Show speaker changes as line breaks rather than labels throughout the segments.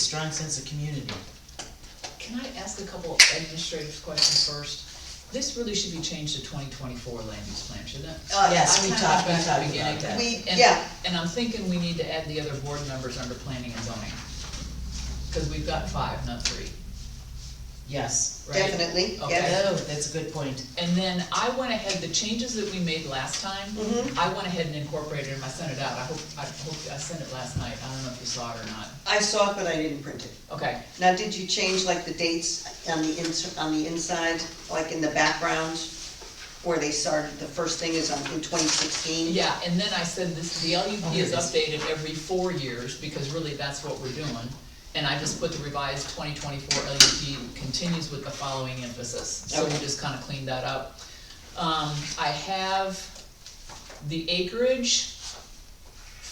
strong sense of community.
Can I ask a couple administrative questions first? This really should be changed to twenty twenty-four land use plan, shouldn't it?
Yes, we talked- we
I kinda
talked
went back to the beginning.
about that.
We-
And-
yeah.
And I'm thinking we need to add the other board members under planning and zoning. Cause we've got five, not three,
Yes.
right?
Definitely, yeah.
Okay.
Oh, that's a good point.
And then I went ahead, the changes that we made last time,
Mhm.
I went ahead and incorporated them, I sent it out, I hope, I hope, I sent it last night, I don't know if you saw it or not.
I saw it, but I didn't print it.
Okay,
Now, did you change like the dates on the ins, on the inside, like in the background? Where they started, the first thing is on, in twenty sixteen?
Yeah, and then I said this, the LUP is
Okay.
updated every four years, because really that's what we're doing. And I just put the revised twenty twenty-four LUP continues with the following emphasis, so we
Okay.
just kinda cleaned that up. Um, I have the acreage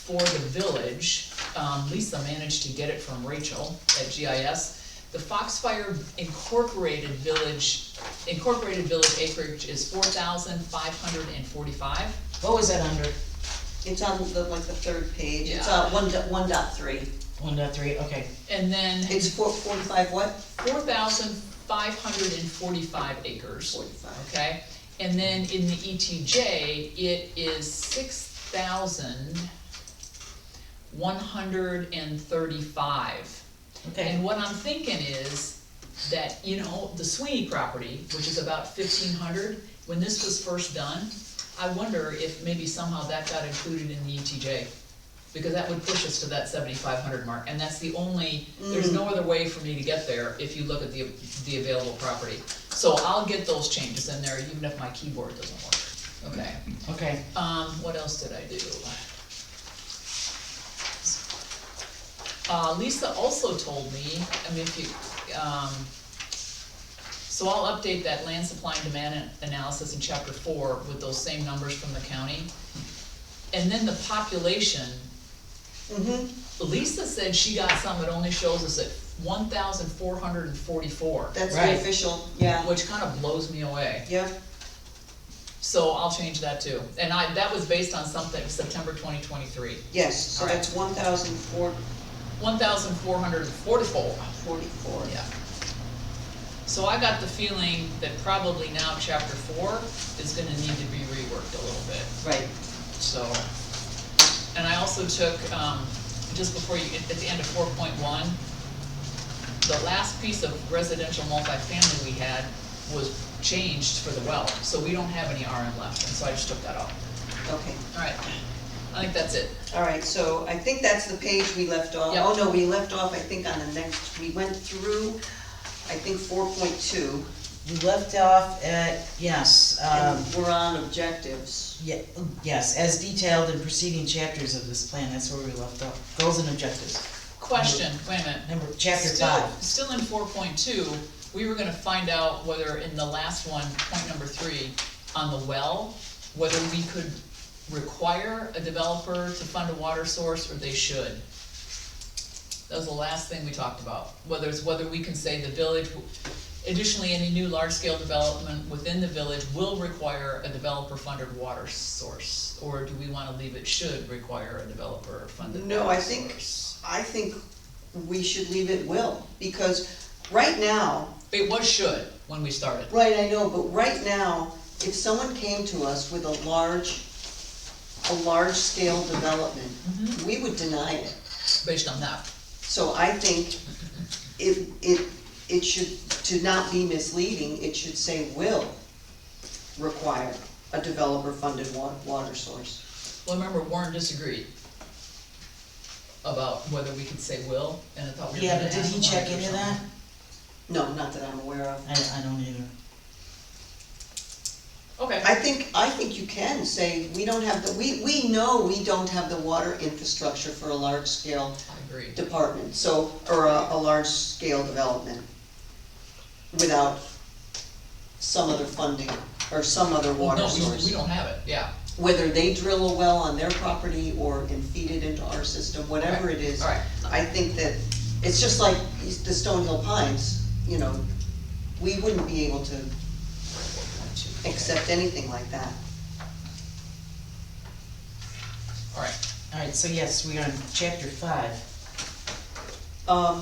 for the village, um, Lisa managed to get it from Rachel at GIS. The Foxfire Incorporated Village, Incorporated Village acreage is four thousand five hundred and forty-five.
What was that under?
It's on the, like the third page, it's
Yeah.
on one dot, one dot three.
One dot three, okay.
And then
It's four, forty-five what?
four thousand five hundred and forty-five acres,
Forty-five.
okay? And then in the ETJ, it is six thousand one hundred and thirty-five.
Okay.
And what I'm thinking is that, you know, the Sweeney property, which is about fifteen hundred, when this was first done, I wonder if maybe somehow that got included in the ETJ. Because that would push us to that seventy-five hundred mark, and that's the only, there's no other way for me to get there if you look at the, the available property. So I'll get those changes in there, even if my keyboard doesn't work, okay?
Okay,
Um, what else did I do? Uh, Lisa also told me, I mean, if you, um, so I'll update that land supply and demand an- analysis in chapter four with those same numbers from the county. And then the population,
Mm-hmm,
Lisa said she got some that only shows us at one thousand four hundred and forty-four,
that's the
Right.
official, yeah,
which kind of blows me away.
yeah.
So I'll change that too. And I, that was based on something, September twenty twenty-three.
Yes, so
Alright.
that's one thousand four
One thousand four hundred and forty-four,
forty-four.
yeah. So I got the feeling that probably now chapter four is gonna need to be reworked a little bit,
Right,
so. And I also took, um, just before you, at the end of four point one, the last piece of residential multifamily we had was changed for the well, so we don't have any RM left, and so I just took that off.
okay.
Alright, I think that's it.
All right, so I think that's the page we left off.
Yep.
Oh, no, we left off, I think, on the next, we went through, I think, four point two,
we left off at, yes, um,
and we're on objectives.
ye- yes, as detailed in preceding chapters of this plan, that's where we left off. Goals and objectives,
Question, wait a minute.
number, chapter
Still-
five.
Still in four point two, we were gonna find out whether in the last one, point number three, on the well, whether we could require a developer to fund a water source or they should. That was the last thing we talked about, whether it's, whether we can say the village, additionally, any new large-scale development within the village will require a developer-funded water source, or do we wanna leave it should require a developer-funded water source?
No, I think, I think we should leave it will, because right now,
It was should when we started.
right, I know, but right now, if someone came to us with a large, a large-scale development, we would deny it.
based on that.
So I think it, it, it should, to not be misleading, it should say will require a developer-funded wa- water source.
Well, remember Warren disagreed about whether we could say will, and I thought we were
Yeah,
gonna
but
ask
did he
Warren
check
or
into
something.
that?
No, not that I'm aware of.
I, I don't either.
Okay,
I think, I think you can say, we don't have the, we, we know we don't have the water infrastructure for a large-scale
I agree.
department, so, or a, a large-scale development without some other funding or some other
Well,
water
no,
source.
we, we don't have it, yeah.
whether they drill a well on their property or and feed it into our system, whatever it is.
Alright,
I think that, it's just like the Stonehill Pines, you know, we wouldn't be able to accept anything like that.
alright.
All right, so yes, we are on chapter five.
Um,